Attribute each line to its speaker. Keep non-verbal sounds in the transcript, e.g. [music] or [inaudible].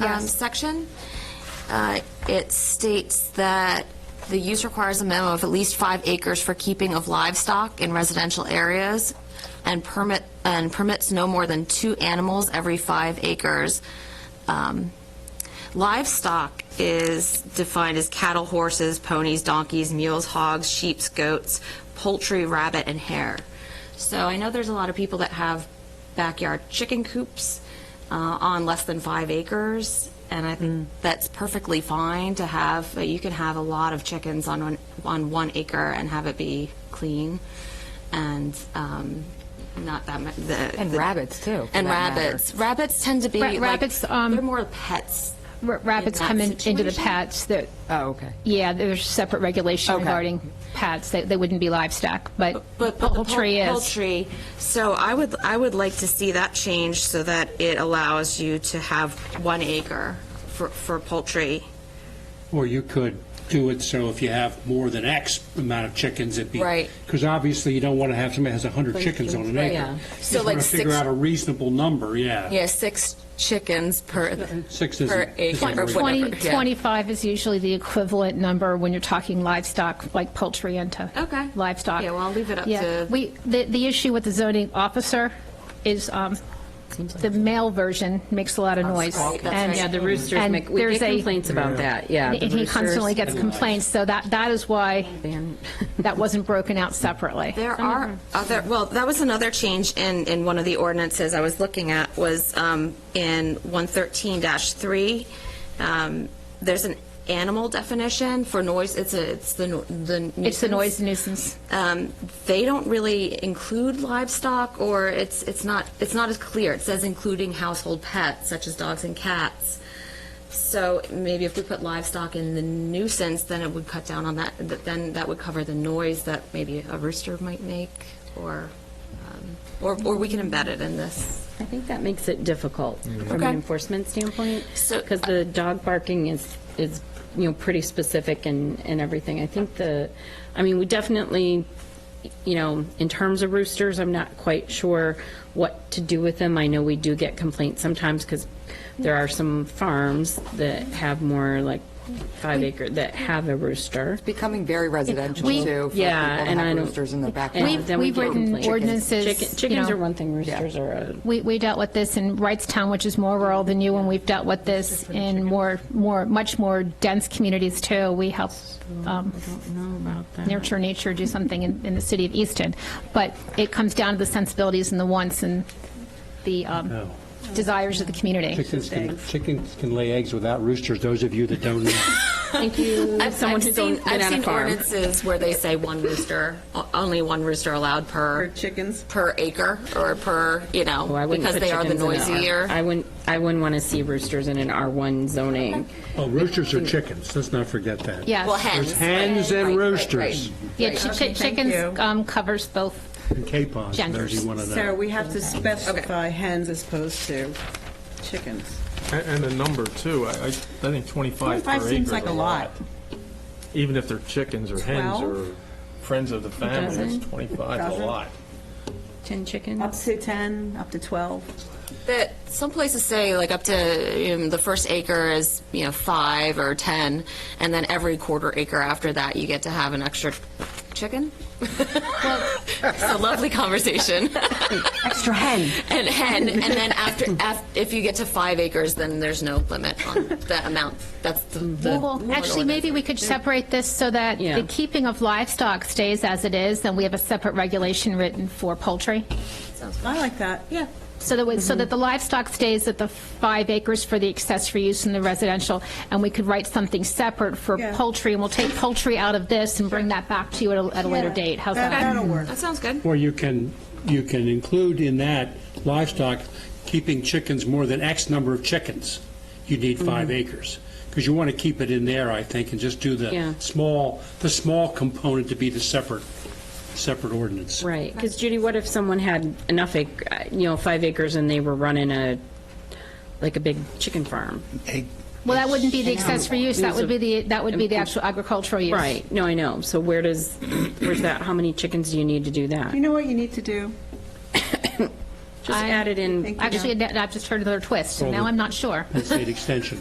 Speaker 1: um, section, uh, it states that the use requires a minimum of at least five acres for keeping of livestock in residential areas and permit, and permits no more than two animals every five acres. Um, Livestock is defined as cattle, horses, ponies, donkeys, mules, hogs, sheep, goats, poultry, rabbit, and hare. So I know there's a lot of people that have backyard chicken coops uh, on less than five acres, and I
Speaker 2: Mm.
Speaker 1: think that's perfectly fine to have, but you can have a lot of chickens on one, on one acre and have it be clean and um, not that much.
Speaker 2: And rabbits, too, for
Speaker 1: And
Speaker 2: that matter.
Speaker 1: rabbits. Rabbits tend to be
Speaker 3: Ra-
Speaker 1: like,
Speaker 3: rabbits, um,
Speaker 1: they're more pets.
Speaker 3: R- Rabbits
Speaker 1: that
Speaker 3: come in- into the
Speaker 1: situation?
Speaker 3: pets, that,
Speaker 2: Oh, okay.
Speaker 3: yeah, there's separate regulation
Speaker 2: Okay.
Speaker 3: regarding pets, they they wouldn't be livestock, but
Speaker 1: But but the pul-
Speaker 3: poultry is.
Speaker 1: Poultry, so I would, I would like to see that change so that it allows you to have one acre for, for poultry.
Speaker 4: Or you could do it so if you have more than X amount of chickens, it'd be.
Speaker 1: Right.
Speaker 4: Because obviously you don't want to have somebody that has 100 chickens on an
Speaker 1: Right.
Speaker 4: acre.
Speaker 1: Yeah.
Speaker 4: You
Speaker 1: So
Speaker 4: just
Speaker 1: like
Speaker 4: want to figure
Speaker 1: six-
Speaker 4: out a reasonable number, yeah.
Speaker 1: Yeah, six chickens per.
Speaker 4: Six
Speaker 1: per
Speaker 4: isn't.
Speaker 1: acre,
Speaker 4: isn't
Speaker 1: or
Speaker 4: really-
Speaker 1: whatever.
Speaker 3: 20,
Speaker 1: yeah.
Speaker 3: 25 is usually the equivalent number when you're talking livestock, like poultry into
Speaker 1: Okay.
Speaker 3: livestock.
Speaker 1: Yeah, well, I'll leave it up
Speaker 3: Yeah.
Speaker 1: to-
Speaker 3: We, the, the issue with the zoning officer is um, the male version makes a lot of noise.
Speaker 1: right, that's
Speaker 3: And-
Speaker 1: right.
Speaker 2: Yeah, the roosters
Speaker 3: and
Speaker 2: make, we
Speaker 3: there's
Speaker 2: get
Speaker 3: a-
Speaker 2: complaints about that, yeah. the
Speaker 3: And he constantly gets
Speaker 2: roosters
Speaker 3: complaints, so that, that is why
Speaker 2: ban-
Speaker 3: that wasn't broken out separately.
Speaker 1: There are other, well, that was another change in, in one of the ordinances I was looking at, was um, in 113-3, um, there's an animal definition for noise, it's a, it's the no- the nuisance.
Speaker 3: It's a noise nuisance.
Speaker 1: Um, They don't really include livestock, or it's, it's not, it's not as clear. It says including household pets, such as dogs and cats. So maybe if we put livestock in the nuisance, then it would cut down on that, th- then that would cover the noise that maybe a rooster might make, or, um, or, or we can embed it in this.
Speaker 2: I think that makes it difficult from
Speaker 1: Okay.
Speaker 2: an enforcement standpoint,
Speaker 1: So-
Speaker 2: because the dog barking is, is, you know, pretty specific and, and everything. I think the, I mean, we definitely, you know, in terms of roosters, I'm not quite sure what to do with them. I know we do get complaints sometimes, because there are some farms that have more like five acre, that have a rooster.
Speaker 5: becoming very residential
Speaker 3: We-
Speaker 5: too. for people
Speaker 2: Yeah,
Speaker 5: to
Speaker 2: and
Speaker 5: have
Speaker 2: I don't-
Speaker 5: roosters in their backyard.
Speaker 2: And then we
Speaker 3: We've
Speaker 2: get
Speaker 3: written
Speaker 2: complaints.
Speaker 3: ordinances,
Speaker 2: Chicken-
Speaker 3: you
Speaker 2: Chickens
Speaker 3: know.
Speaker 2: are one thing, roosters are a.
Speaker 3: We, we dealt with this in Wrightstown, which is more rural than you, and we've dealt with this in more, more, much more dense communities too. We help um,
Speaker 2: Know about that.
Speaker 3: Nurture Nature do something in, in the city of Easton. But it comes down to the sensibilities and the wants and the um,
Speaker 4: No.
Speaker 3: desires of the community.
Speaker 4: Chickens can, chickens can lay eggs without roosters, those of you that don't know.
Speaker 2: Thank [laughs] you,
Speaker 1: I've-
Speaker 2: someone
Speaker 1: I've
Speaker 2: who's on-
Speaker 1: seen-
Speaker 2: been on a farm.
Speaker 1: I've seen ordinances where they say one rooster, o- only one rooster allowed per.
Speaker 6: Per chickens?
Speaker 1: Per acre, or per, you
Speaker 2: Oh, I
Speaker 1: know,
Speaker 2: wouldn't
Speaker 1: because
Speaker 2: put
Speaker 1: they are the
Speaker 2: chickens in an R-
Speaker 1: noisier.
Speaker 2: I wouldn't, I wouldn't want to see roosters in an R1 zoning.
Speaker 4: Oh, roosters are chickens, let's not forget that.
Speaker 1: Well,
Speaker 3: Yes.
Speaker 1: hens.
Speaker 4: There's hens
Speaker 1: Right, right,
Speaker 4: and
Speaker 1: right.
Speaker 4: roosters
Speaker 3: Yeah, chi- chi- chickens
Speaker 6: you.
Speaker 3: um, covers both.
Speaker 4: and capons, those
Speaker 3: Genders.
Speaker 4: you want to know.
Speaker 6: So we have to specify hens as opposed to chickens.
Speaker 7: And and the number, too, I, I I think 25 per
Speaker 6: 25
Speaker 7: acre is a lot.
Speaker 6: seems like a lot.
Speaker 7: Even if they're chickens or hens or
Speaker 6: Twelve?
Speaker 7: friends of the family,
Speaker 2: dozen?
Speaker 7: it's 25 is a
Speaker 6: Dozen?
Speaker 7: lot.
Speaker 2: 10
Speaker 6: Up
Speaker 2: chickens?
Speaker 6: to 10, up to 12.
Speaker 1: That some places say like up to um, the first acre is you know five or ten, and then every quarter acre after that you get to have an extra chicken. [laughs] it's a lovely conversation.
Speaker 5: [laughs] Extra hen.
Speaker 1: and hen, and then after, af- if you get to five acres, then there's no limit on the amount. That's the, the
Speaker 3: Well, actually, maybe we could separate this so that
Speaker 2: Yeah.
Speaker 3: the keeping of livestock stays as it is, and we have a separate regulation written for poultry.
Speaker 6: I like that, yeah.
Speaker 3: So that, we- so that the livestock stays at the five acres for the accessory use in the residential, and we could write something separate for
Speaker 6: Yeah.
Speaker 3: poultry, and we'll take poultry out of this and bring that back to you at a, at a later date. How's
Speaker 6: That-
Speaker 3: that?
Speaker 6: That'll work.
Speaker 1: that sounds good.
Speaker 4: Or you can, you can include in that livestock, keeping chickens more than X number of chickens, you need
Speaker 2: Mm-hmm.
Speaker 4: five acres. Because you want to keep it in there, I think, and just do
Speaker 2: Yeah.
Speaker 4: the small, the small component to be the separate, separate ordinance.
Speaker 2: Right, because Judy, what if someone had enough, ac- uh, you know, five acres and they were running a, like a big chicken farm?
Speaker 3: Well, that wouldn't be the accessory use, that would be the, that would be the actual agricultural use.
Speaker 2: Right, no, I know. So where does, where's that, how many chickens do you need to do that?
Speaker 6: You know what you need to do?
Speaker 2: Just
Speaker 3: I-
Speaker 2: add it in.
Speaker 3: Actually, I I just heard another twist. Now I'm not sure.
Speaker 4: state extension.